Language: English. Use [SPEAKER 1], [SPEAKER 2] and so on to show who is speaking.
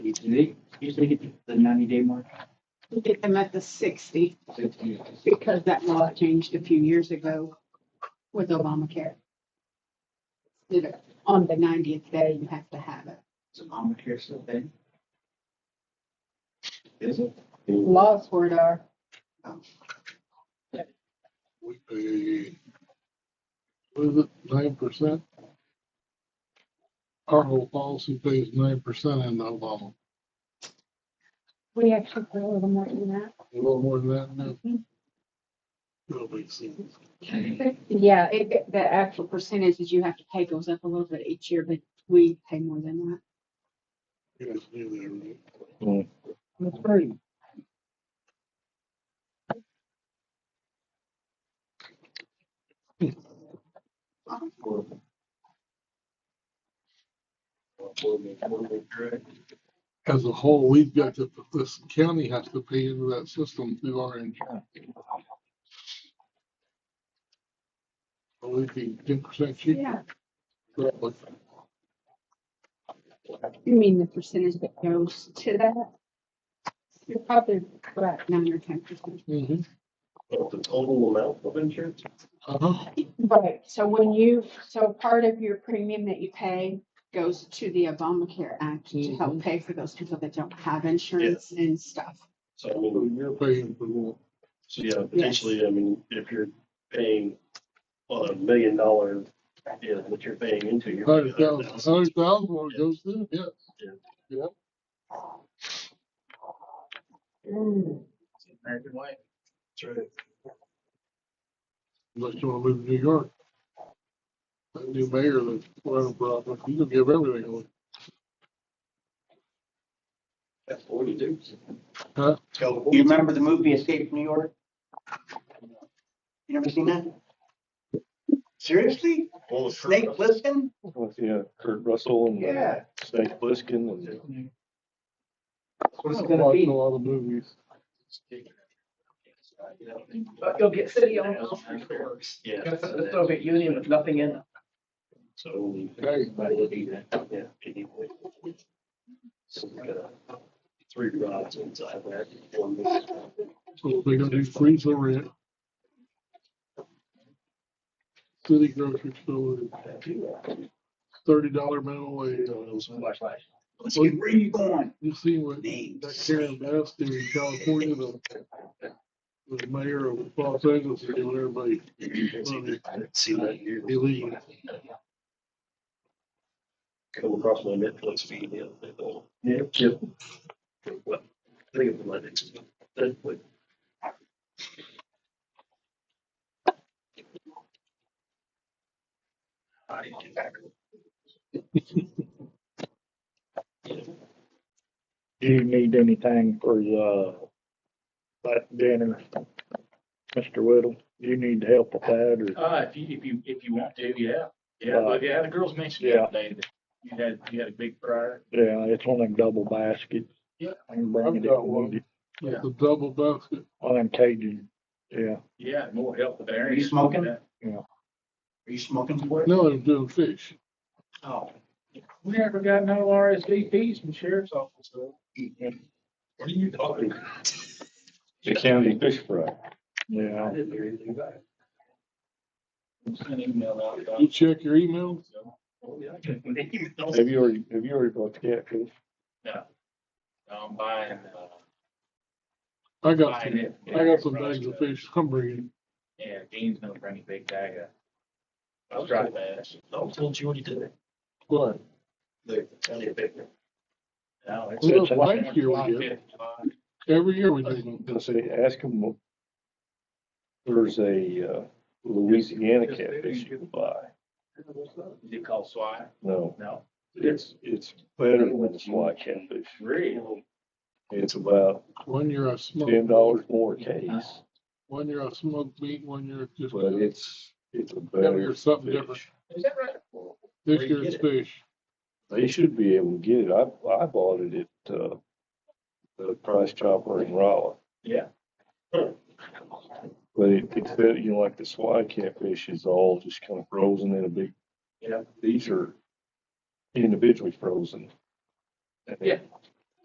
[SPEAKER 1] ninety, do they usually get the ninety day mark?
[SPEAKER 2] We'll get them at the sixty
[SPEAKER 1] Fifty.
[SPEAKER 2] because that law changed a few years ago with Obamacare. You know, on the ninetieth day, you have to have it.
[SPEAKER 1] Is Obamacare still a thing? Is it?
[SPEAKER 2] Laws for it are,
[SPEAKER 3] we pay, what is it, nine percent? Our whole policy pays nine percent in Obama,
[SPEAKER 2] we actually put a little more than that.
[SPEAKER 3] a little more than that now. It'll make sense.
[SPEAKER 2] Yeah, it, it- the actual percentage that you have to pay goes up a little bit each year, but we pay more than that.
[SPEAKER 3] You guys knew that, right?
[SPEAKER 4] That's great.
[SPEAKER 3] As a whole, we've got to, this county has to pay into that system through our insurance. So we'd be ten percent cheaper. roughly.
[SPEAKER 2] You mean the percentage that goes to that? You're probably about nine or ten percent.
[SPEAKER 3] Mhm.
[SPEAKER 5] The total amount of insurance?
[SPEAKER 3] Uh-huh.
[SPEAKER 2] Right, so when you, so part of your premium that you pay goes to the Obamacare Act to help pay for those people that don't have insurance and stuff.
[SPEAKER 5] So I mean,
[SPEAKER 3] You're paying for more.
[SPEAKER 5] so yeah, potentially, I mean, if you're paying well, a million dollar, you know, what you're paying into. you're paying
[SPEAKER 3] Hundred thousand, hundred thousand, well, it goes through, yeah.
[SPEAKER 1] American way.
[SPEAKER 5] That's right.
[SPEAKER 3] Unless you wanna move to New York. That new mayor that's running for office, he's gonna give everything away.
[SPEAKER 5] That's what we do.
[SPEAKER 3] Huh?
[SPEAKER 6] You remember the movie Escape from New York? You never seen that? Seriously?
[SPEAKER 5] Well, it's-
[SPEAKER 6] Snake Plissken?
[SPEAKER 7] with yeah, Kurt Russell and uh,
[SPEAKER 6] Yeah.
[SPEAKER 7] Snake Plissken and
[SPEAKER 6] That's what it's
[SPEAKER 3] I've
[SPEAKER 6] gonna
[SPEAKER 3] watched
[SPEAKER 6] be.
[SPEAKER 3] a lot of movies.
[SPEAKER 8] But you'll get city owned health resorts.
[SPEAKER 5] Yeah.
[SPEAKER 8] That's the Soviet Union with nothing in it.
[SPEAKER 5] So.
[SPEAKER 3] Hey.
[SPEAKER 5] Everybody would do that, yeah, anyway. So we got uh, three rods inside that. one-
[SPEAKER 3] So they're gonna do freeze the rent. City grocery store, thirty dollar uh, minimum wage.
[SPEAKER 8] Flashlight.
[SPEAKER 6] Let's get where you going.
[SPEAKER 3] You see what that
[SPEAKER 6] Names.
[SPEAKER 3] Karen Bass did in California, the, the mayor of Los Angeles, is giving everybody money
[SPEAKER 5] See that here.
[SPEAKER 3] illegal.
[SPEAKER 5] Come across my Netflix feed the other day, though. Yeah. What? I think it was my next. Netflix. I didn't get back.
[SPEAKER 4] Do you need anything for uh, the, like Danner, Mr. Whittle? Do you need help with that or?
[SPEAKER 9] Uh, if you, if you, if you want to, yeah, yeah,
[SPEAKER 4] Uh,
[SPEAKER 9] but yeah, the girls mentioned the other day that you had, you had a big fryer.
[SPEAKER 4] Yeah, it's one of them double baskets.
[SPEAKER 9] Yeah.
[SPEAKER 4] I can bring
[SPEAKER 3] I've
[SPEAKER 4] it if
[SPEAKER 3] got
[SPEAKER 4] you
[SPEAKER 3] one.
[SPEAKER 4] need it.
[SPEAKER 3] It's a double basket.
[SPEAKER 4] One of them Cajun, yeah.
[SPEAKER 9] Yeah, more help with
[SPEAKER 6] Are
[SPEAKER 9] Aaron.
[SPEAKER 6] you smoking?
[SPEAKER 9] Yeah.
[SPEAKER 6] Are you smoking for it?
[SPEAKER 3] No, they're doing fish.
[SPEAKER 6] Oh.
[SPEAKER 9] We never got no RSVPs from sheriff's office. though.
[SPEAKER 5] What are you talking?
[SPEAKER 7] the county fish fry.
[SPEAKER 4] Yeah.
[SPEAKER 5] I didn't hear anything back.
[SPEAKER 9] Sent an email out about
[SPEAKER 3] You
[SPEAKER 9] it,
[SPEAKER 3] check your email,
[SPEAKER 9] so,
[SPEAKER 5] Oh, yeah, I can't believe it.
[SPEAKER 7] Have you already, have you already bought the catfish?
[SPEAKER 9] I'm buying, uh,
[SPEAKER 3] I got,
[SPEAKER 9] buying it.
[SPEAKER 3] I got some bags of fish, I'm bringing.
[SPEAKER 9] Yeah, Dean's gonna bring a big bag of. I was driving fast.
[SPEAKER 5] No, I told you what he did.
[SPEAKER 3] What?
[SPEAKER 5] The county baker.
[SPEAKER 9] No, it's-
[SPEAKER 3] Well,
[SPEAKER 9] it's-
[SPEAKER 3] last year we did. Every year we do them.
[SPEAKER 7] I was gonna say, ask him. There's a uh, Louisiana catfish you can buy.
[SPEAKER 9] Is it called swat?
[SPEAKER 7] No,
[SPEAKER 9] No.
[SPEAKER 7] it's, it's better than fly catfish.
[SPEAKER 9] Really?
[SPEAKER 7] It's about
[SPEAKER 3] One year I smoked.
[SPEAKER 7] ten dollars more a case,
[SPEAKER 3] One year I smoked meat, one year it's just.
[SPEAKER 7] but it's, it's a
[SPEAKER 3] Every
[SPEAKER 7] better
[SPEAKER 3] year something different.
[SPEAKER 7] fish.
[SPEAKER 9] Is that right?
[SPEAKER 3] This year it's fish.
[SPEAKER 7] They should be able to get it. I, I bought it at, uh, the Price Chopper in Raleigh.
[SPEAKER 9] Yeah.
[SPEAKER 7] But it, it's, that, you know, like the swai catfish is all just kind of frozen in a big.
[SPEAKER 9] Yeah.
[SPEAKER 7] These are individually frozen. And
[SPEAKER 9] Yeah.